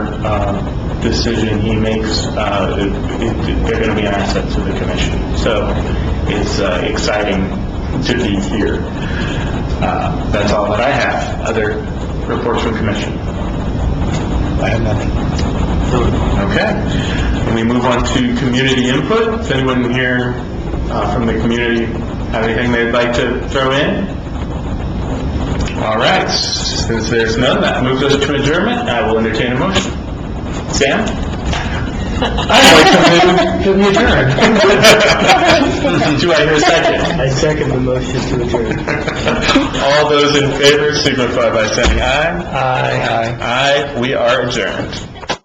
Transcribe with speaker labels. Speaker 1: uh, decision he makes, uh, it- it- they're going to be an asset to the commission. So it's uh, exciting to be here. Uh, That's all that I have. Other reports from commission?
Speaker 2: I have nothing.
Speaker 1: Okay. And we move on to community input. Does anyone here uh, from the community have anything they'd like to throw in? All right, since there's none, that moves us to adjournment. I will entertain a motion. Sam? I'd like to move to adjourn. Do I hear a second?
Speaker 2: I second the motion to adjourn.
Speaker 1: All those in favor signify by saying aye.
Speaker 2: Aye.
Speaker 1: Aye, we are adjourned.